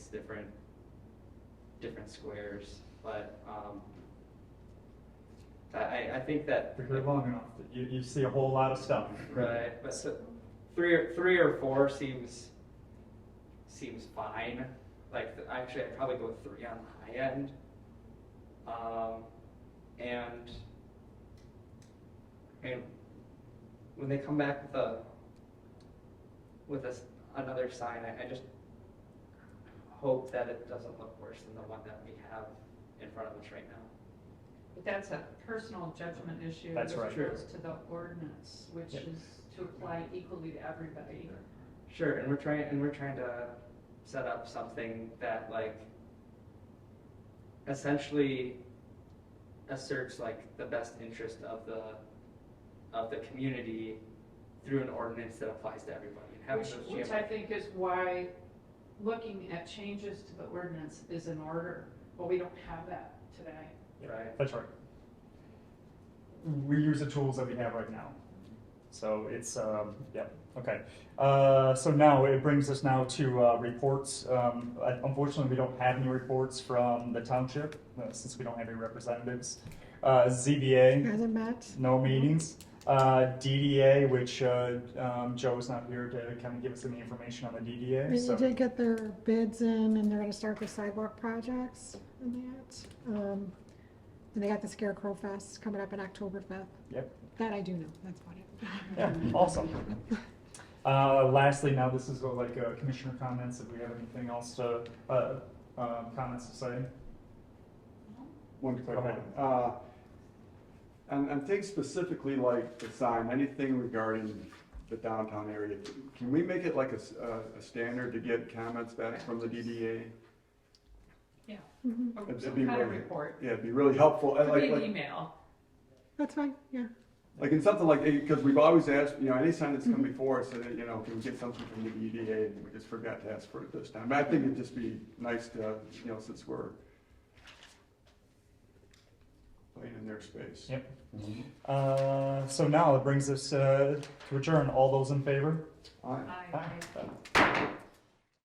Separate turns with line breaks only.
different, different squares, but, um, I, I, I think that.
If you're long enough, you, you see a whole lot of stuff.
Right, but so, three or, three or four seems, seems fine, like, th- actually, I'd probably go with three on the high end. Um, and, and when they come back with a, with a s another sign, I, I just hope that it doesn't look worse than the one that we have in front of us right now.
But that's a personal judgment issue.
That's right.
Which goes to the ordinance, which
Yeah.
is to apply equally to everybody.
Sure, and we're trying and we're trying to set up something that like essentially asserts like the best interest of the of the community through an ordinance that applies to everybody and having
Which,
those
which
GMI
I think is why looking at changes to the ordinance is in order, but we don't have that today.
Right.
That's right. We use the tools that we have right now. So it's, um, yeah, okay. Uh, so now it brings us now to uh, reports. Um, I- unfortunately, we don't have any reports from the township uh, since we don't have any representatives. Uh, ZBA,
Are there met?
no meetings. Uh, DDA, which uh, um, Joe's not here to kind of give us any information on the DDA.
They
So
did get their bids in and they're gonna start the sidewalk projects and that. Um, And they got the Scarecrow Fest coming up in October fifth.
Yep.
That I do know, that's about
Yeah, awesome. Uh, Lastly, now this is uh, like uh, commissioner comments, if we have anything else to, uh, uh, comments to say.
One quick
Go
one.
ahead.
Uh, And, and things specifically like the sign, anything regarding the downtown area, can we make it like a, s- a- a standard to get comments back from the DDA?
Yeah.
Mhm.
Or
That'd
Some
be
kind of
really-
report.
Yeah, it'd be really helpful. And
Could be
Like,
an
like,
email.
That's fine, yeah.
like in something like, because we've always asked, you know, any sign that's come before us, uh, you know, can we get something from the DDA? And we just forgot to ask for it this time. But I think it'd just be nice to, you know, since we're playing in their space.
Yep. Uh, So now it brings us uh, to adjourn. All those in favor?
Aye.
Aye.
Aye.